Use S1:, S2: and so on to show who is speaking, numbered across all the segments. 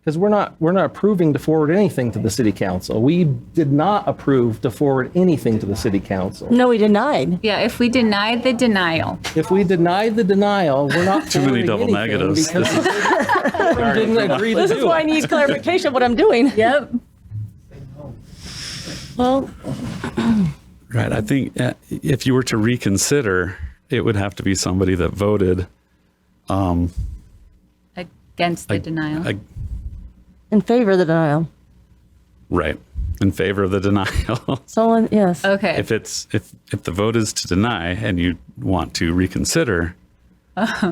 S1: because we're not, we're not approving to forward anything to the city council. We did not approve to forward anything to the city council.
S2: No, we denied.
S3: Yeah, if we deny the denial,
S1: If we deny the denial, we're not
S4: Too
S1: forwarding
S4: many double
S1: anything
S4: negatives.
S1: because
S4: This
S1: we Didn't agree to
S2: This is
S1: do
S2: why I
S1: it.
S2: need clarification of what I'm doing.
S3: yep,
S2: Well,
S4: Right. I think uh, if you were to reconsider, it would have to be somebody that voted
S3: against the denial.
S4: ag-
S2: in favor of the denial.
S4: right in favor of the denial.
S2: Someone, yes.
S3: Okay,
S4: if it's if if the vote is to deny and you want to reconsider,
S1: Okay.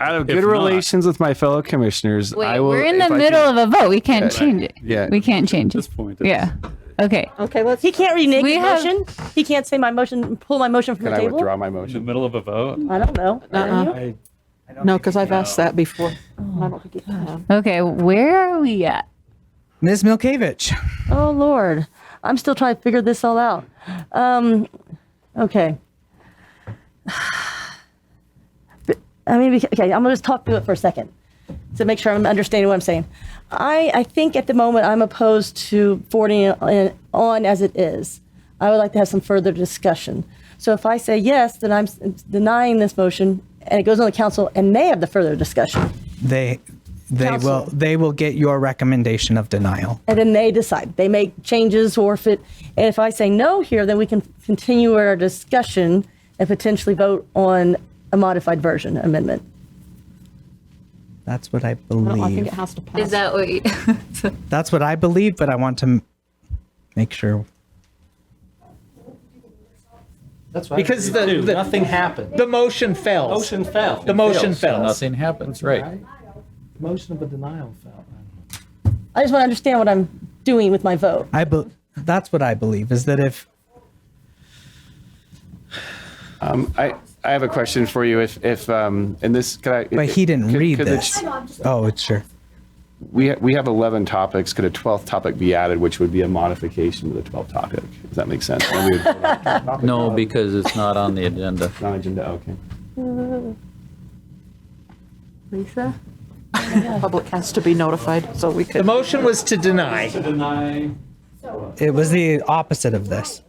S5: Out of
S4: If
S5: good
S4: not-
S5: relations with my fellow commissioners, I
S3: wait,
S5: will.
S3: we're in
S5: if
S3: the
S5: I
S3: middle
S5: can-
S3: of a vote. We can't change it.
S5: yeah.
S3: We can't change it.
S4: this point, it's-
S3: Yeah, okay.
S2: Okay, let's. Uh, He can't renege
S3: We
S2: his
S3: have-
S2: motion. He can't say my motion, pull my motion from
S5: Can
S2: the
S5: I
S2: table.
S5: withdraw my
S4: in the
S5: motion?
S4: middle of a vote.
S2: I don't know.
S6: Uh-uh.
S2: Can you?
S6: No, because I've asked that before. and I don't think you can.
S3: Okay, where are we at?
S7: Ms. Milkevich.
S2: Oh Lord, I'm still trying to figure this all out. Um, okay. But, I mean, beca- okay, I'm gonna just talk through it for a second to make sure I'm understanding what I'm saying. I, I think at the moment I'm opposed to forwarding it on- on as it is. I would like to have some further discussion. So if I say yes, then I'm s- denying this motion, and it goes on the council, and they have the further discussion,
S7: They they
S2: Counsel.
S7: will they will get your recommendation of denial.
S2: and then they decide. They make changes or if it, and if I say no here, then we can continue our discussion and potentially vote on a modified version amendment.
S7: That's what I
S6: I don't- I think
S7: believe.
S6: it has to pass.
S3: Is that what, you-
S7: That's what I believe, but I want to m- make sure.
S8: Because the,
S1: Dude,
S8: the,
S1: Nothing happened.
S8: the motion fails.
S1: Motion fell.
S8: The motion
S1: Fails.
S8: fails.
S9: Nothing happens, right?
S1: Motion of a denial fell.
S2: I just want to understand what I'm doing with my vote.
S7: I be, that's what I believe is that if
S5: I, I have a question for you. If, if, um, and this, could I?
S7: but he didn't
S5: could-
S7: read
S5: could the
S7: this.
S5: ch-
S7: Oh, it's sure.
S5: We, ha- we have 11 topics. Could a 12th topic be added, which would be a modification to the 12th topic? Does that make sense? And we would vote on the 12th topic,
S9: No,
S5: not on-
S9: because it's not on the agenda.
S5: Non-agenda, okay.
S6: Lisa? The public has to be notified, so we
S8: The
S6: could.
S8: motion was to deny.
S4: Deny.
S7: It was the opposite of this.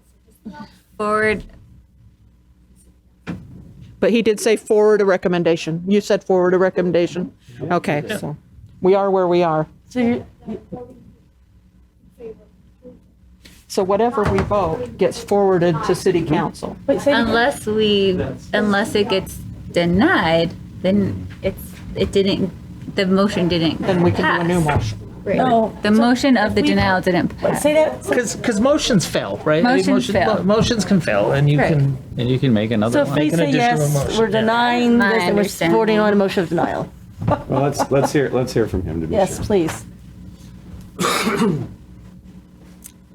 S3: forward,
S6: But he did say forward a recommendation. You said forward a recommendation. Okay, so we are where we are.
S2: So you,
S6: So whatever we vote gets forwarded to city council.
S2: wait, say,
S3: unless we, unless it gets denied, then it's, it didn't, the motion didn't
S6: Then we can do a new
S3: pass.
S6: motion.
S2: no,
S3: The motion of the denial didn't pass.
S2: say that. say-
S8: Because because motions fail, right? I mean,
S3: Motions
S8: motion-
S3: fail.
S8: Motions can fail, and you
S3: Right.
S8: can.
S9: And you can make another
S2: So if we
S9: one.
S8: an
S2: say
S8: additional
S2: yes,
S8: motion,
S2: we're
S8: yeah.
S2: denying
S3: My
S2: this and we're
S3: understanding.
S2: supporting on a motion of denial.
S5: Well, let's, let's hear, let's hear from him to be sure.
S2: Yes, please.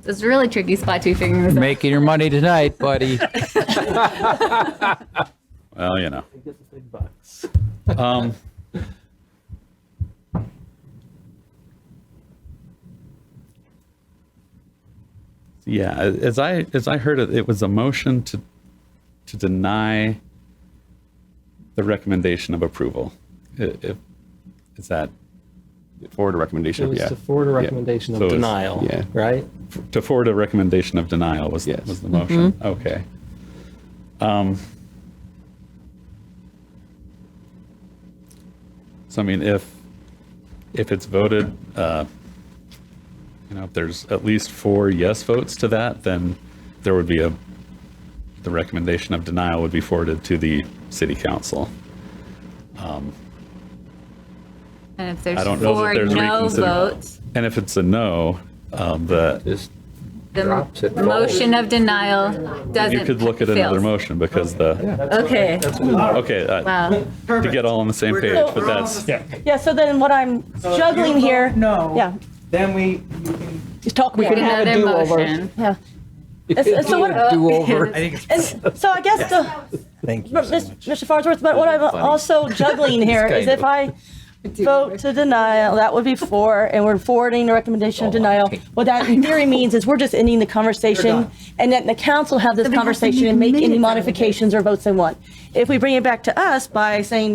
S3: It's a really tricky spot to be figuring this out.
S9: Making your money tonight, buddy.
S4: Well, you know. Um, yeah, as I as I heard it, it was a motion to to deny the recommendation of approval. I- If is that
S5: Forward a
S1: It
S5: recommendation,
S1: was
S5: yeah.
S1: to forward a recommendation
S4: So
S1: of
S4: it's-
S1: denial,
S5: yeah.
S1: right?
S4: to forward a recommendation of denial was
S5: Yes.
S4: was the motion.
S3: Mm-hmm.
S4: Okay. Um, so I mean, if if it's voted, uh, you know, if there's at least four yes votes to that, then there would be a the recommendation of denial would be forwarded to the city council.
S3: And if there's
S4: I don't know that
S3: four
S4: there's
S3: no
S4: reconsider-
S3: votes,
S4: And if it's a no, um, the
S9: Just
S3: the
S9: drops it.
S3: motion of denial doesn't.
S4: you could look at another
S3: fails.
S4: motion because the
S3: Okay,
S4: okay uh,
S3: wow.
S4: to get all on the same page, but that's
S2: Yeah, so then what I'm juggling here,
S7: No.
S2: yeah,
S7: Then we.
S6: Just talk, we can have a
S3: Another
S6: do-over.
S3: motion.
S2: yeah. It's- So what?
S7: I think it's.
S2: And so I guess the,
S7: Thank you.
S2: but
S7: so
S2: Mis-
S7: much.
S2: Mr. Farnsworth, but what I'm also juggling here is if I vote to denial, that would be four, and we're forwarding the recommendation
S7: Oh,
S2: of denial. What that in theory means is we're just ending the conversation, and then the council have this conversation and make any modifications or votes they want. If we bring it back to us by saying,